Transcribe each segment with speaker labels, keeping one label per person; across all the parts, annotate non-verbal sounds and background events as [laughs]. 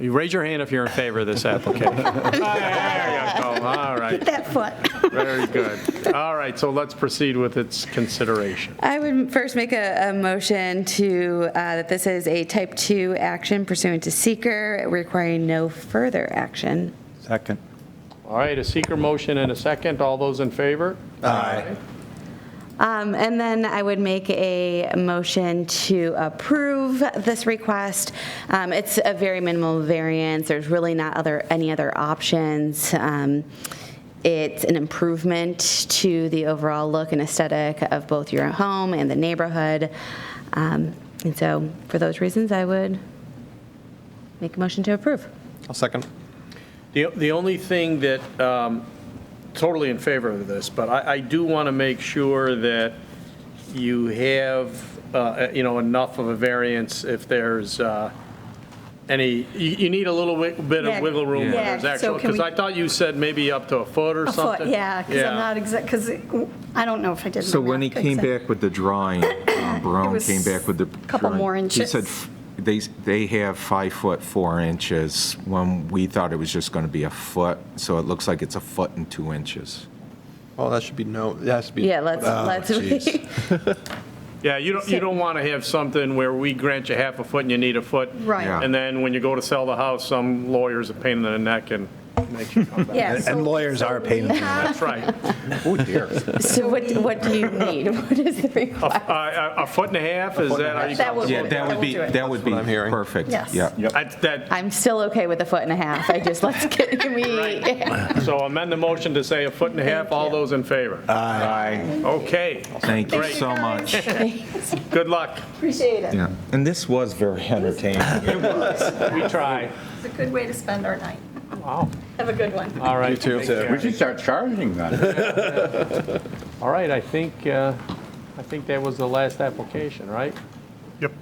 Speaker 1: You raise your hand if you're in favor of this [laughs] application. There you go. All right,
Speaker 2: that foot.
Speaker 1: very good. All right, so let's proceed with its consideration.
Speaker 3: I would first make a, a motion to, uh, that this is a type 2 action pursuant to seeker, requiring no further action.
Speaker 4: Second.
Speaker 1: All right, a seeker motion and a second. All those in favor?
Speaker 4: Aye.
Speaker 3: Um, And then I would make a motion to approve this request. Um, It's a very minimal variance, there's really not other, any other options. Um, It's an improvement to the overall look and aesthetic of both your home and the neighborhood. Um, And so, for those reasons, I would make a motion to approve.
Speaker 4: I'll second.
Speaker 1: The, the only thing that, um, totally in favor of this, but I, I do want to make sure that you have, uh, you know, enough of a variance if there's uh, any, you, you need a little wi- bit
Speaker 2: Yeah.
Speaker 1: of wiggle room when
Speaker 2: Yeah,
Speaker 1: there's
Speaker 2: so
Speaker 1: actual,
Speaker 2: can
Speaker 1: because
Speaker 2: we-
Speaker 1: I thought you said maybe up to a foot or
Speaker 2: A foot,
Speaker 1: something.
Speaker 2: yeah, because I'm not exact, because I don't know if I did.
Speaker 5: So
Speaker 2: my
Speaker 5: when he
Speaker 2: math
Speaker 5: came
Speaker 2: exact-
Speaker 5: back with the
Speaker 2: [coughs]
Speaker 5: drawing, um, Barone
Speaker 2: was
Speaker 5: came back with the.
Speaker 2: couple
Speaker 5: drawing,
Speaker 2: more
Speaker 5: He
Speaker 2: inches.
Speaker 5: said f- they, they have five foot, four inches, when we thought it was just going to be a foot, so it looks like it's a foot and two inches.
Speaker 4: Well, that should be no, that has to be.
Speaker 3: Yeah, let's,
Speaker 5: Ah,
Speaker 4: Oh,
Speaker 3: let's.
Speaker 4: jeez.
Speaker 1: Yeah, you don't, you don't want to have something where we grant you half a foot and you need a foot.
Speaker 2: Right.
Speaker 5: Yeah.
Speaker 1: And then when you go to sell the house, some lawyer's a pain in the neck and makes you come back.
Speaker 2: Yeah,
Speaker 4: And-
Speaker 2: so-
Speaker 4: and lawyers
Speaker 2: so
Speaker 4: are a
Speaker 2: we
Speaker 4: pain in the
Speaker 2: have- [laughs]
Speaker 1: That's right.
Speaker 4: Oh,
Speaker 5: [laughs]
Speaker 4: dear.
Speaker 3: [laughs] So what, what do you need? What is the
Speaker 1: A-
Speaker 3: request?
Speaker 1: Uh, A a foot and a half, is that how you?
Speaker 2: That would-
Speaker 5: Yeah, that would be,
Speaker 2: do it.
Speaker 5: that would be
Speaker 4: That's what I'm hearing.
Speaker 5: perfect.
Speaker 2: Yes.
Speaker 5: Yeah.
Speaker 1: I- That,
Speaker 3: I'm still okay with a foot and a half. I just, let's get, can we,
Speaker 1: so amend the motion to say a foot and a half, all those in favor?
Speaker 6: Ah.
Speaker 5: Aye.
Speaker 1: Okay,
Speaker 5: Thank you
Speaker 1: Great.
Speaker 5: so much.
Speaker 1: good luck.
Speaker 2: Appreciate it.
Speaker 5: Yeah. And this was very entertaining.
Speaker 1: We try.
Speaker 2: It's a good way to spend our night.
Speaker 1: Wow,
Speaker 2: Have a good one.
Speaker 1: all right.
Speaker 4: too.
Speaker 1: take care.
Speaker 6: We should start charging then.
Speaker 1: [laughs] All right, I think, uh, I think that was the last application, right?
Speaker 7: Yep.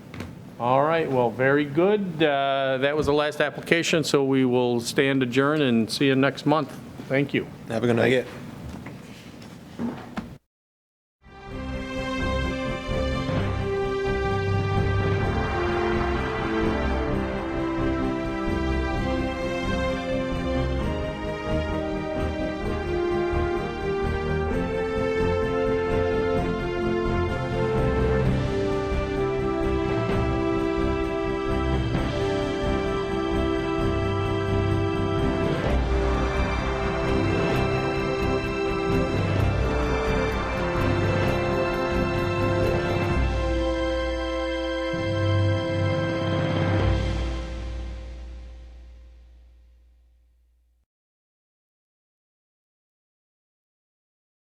Speaker 1: All right, well, very good. Uh, That was the last application, so we will stand adjourned and see you next month. Thank you.
Speaker 4: Have a good night.